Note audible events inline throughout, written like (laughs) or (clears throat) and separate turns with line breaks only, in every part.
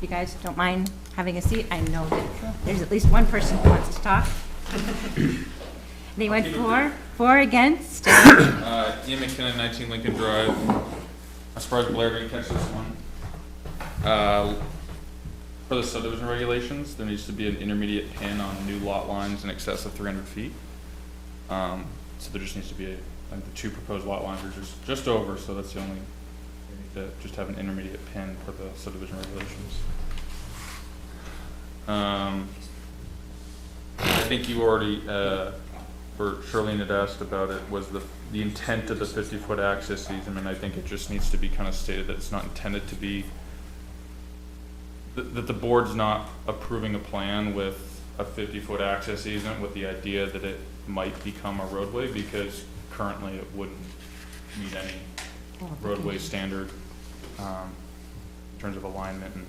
you guys don't mind having a seat, I know that there's at least one person who wants to talk. They went for, for against,
Uh, Ian McKinnon, 19 Lincoln Drive. I'm surprised Blair didn't catch this one. Uh, For the subdivision regulations, there needs to be an intermediate pin on new lot lines in excess of 300 feet. Um, So there just needs to be, a- like, the two proposed lot lines are just, just over, so that's the only, we need to just have an intermediate pin for the subdivision regulations. Um, I think you already, uh, where Charlene had asked about it, was the, the intent of the fifty-foot access easement, I think it just needs to be kind of stated that it's not intended to be, that, that the board's not approving a plan with a fifty-foot access easement with the idea that it might become a roadway, because currently it wouldn't meet any roadway standard, um, in terms of alignment and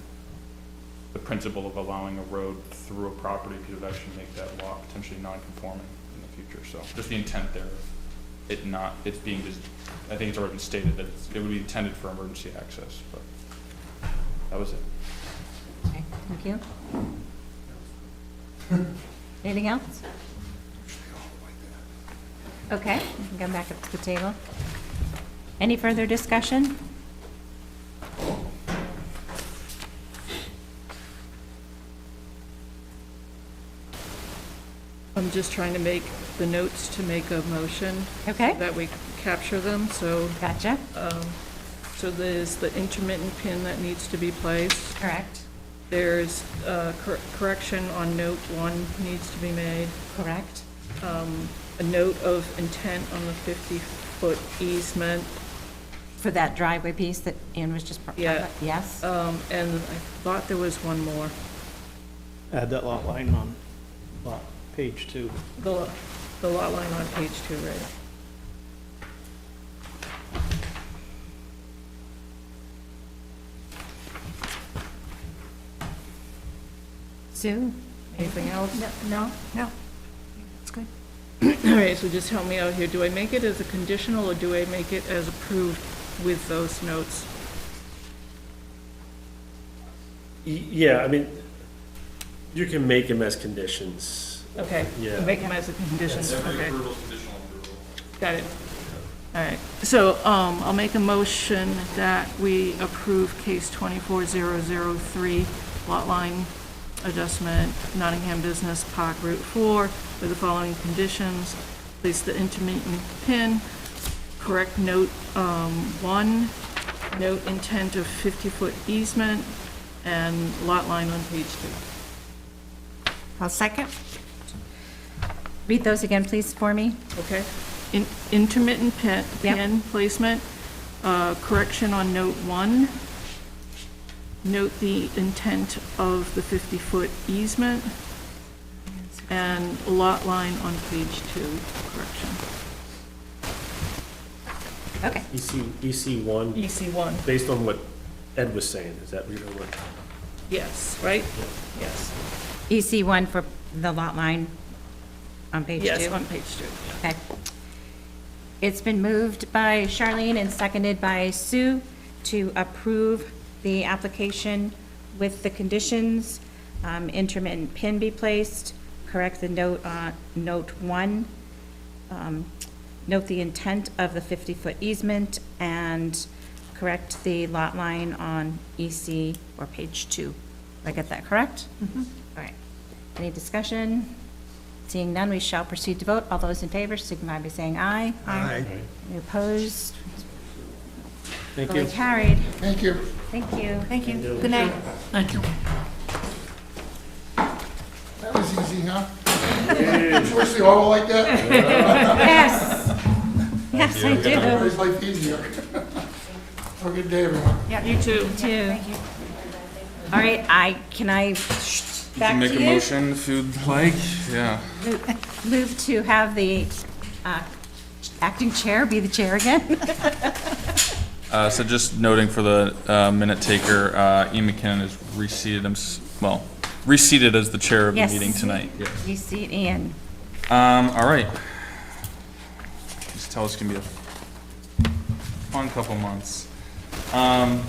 the principle of allowing a road through a property could actually make that lot potentially non-conforming in the future, so just the intent there, it not, it's being, dis- I think it's already been stated that it's- it would be intended for emergency access, but that was it.
Okay, thank you. Anything else? Okay, we can come back up to the table. Any further discussion?
I'm just trying to make the notes to make a motion
Okay,
that we capture them, so,
gotcha,
so there's the intermittent pin that needs to be placed.
correct,
There's uh, cor- correction on note one needs to be made, Um,
correct,
a note of intent on the 50-foot easement,
for that driveway piece that Ian was just.
Yeah.
Yes,
um, and I thought there was one more.
Add that lot line on lot, page two.
The lo- the lot line on page two, right? (clears throat)
Sue?
Anything else?
No, no, it's good.
All right, so just help me out here. Do I make it as a conditional, or do I make it as approved with those notes?
Yeah, I mean, you can make them as conditions.
Okay.
Yeah.
Make them as a condition, okay.
conditional approval.
Got it. All right. So um, I'll make a motion that we approve case 24003, lot line adjustment, Nottingham Business Park Route 4, with the following conditions. Place the intermittent pin, correct note um, 1, note intent of 50-foot easement, and lot line on page 2.
I'll second. Read those again, please, for me.
Okay. In- Intermittent pin,
Yep.
pin placement, uh, correction on note one. Note the intent of the 50-foot easement and lot line on page two, correction.
Okay,
EC, EC E one,
EC one.
based on what Ed was saying, is that, you know, what?
Yes, right? Yes.
EC E one for the lot line on page two.
Yes, on page two.
Okay. It's been moved by Charlene and seconded by Sue to approve the application with the conditions, um, intermittent pin be placed, correct the note, uh, note one, um, note the intent of the 50-foot easement, and correct the lot line on EC or page two. Did I get that correct? All right. Any discussion? Seeing none, we shall proceed to vote. All those in favor signify by saying aye. Aye. Any opposed?
Thank
Duly
you.
carried. Thank you. Thank you.
Thank you. Good night.
Thank you.
That was easy, huh? Did you wish they all were like that?
Yes. Yes, I do.
Everybody's life easier. (laughs) Have a good day, everyone.
You too.
Do. All right, I, can I, back to
Make a
you?
motion if you'd like, yeah.
(laughs) Move to have the uh, acting chair be the chair again?
Uh, so just noting for the, uh, minute taker, uh, Ian McKinnon is reseated, him s- well, reseated as the chair of the
Yes.
meeting tonight. Yes.
You see it, Ian.
Um, all right. Just tell us it's gonna be a fun couple months. Um,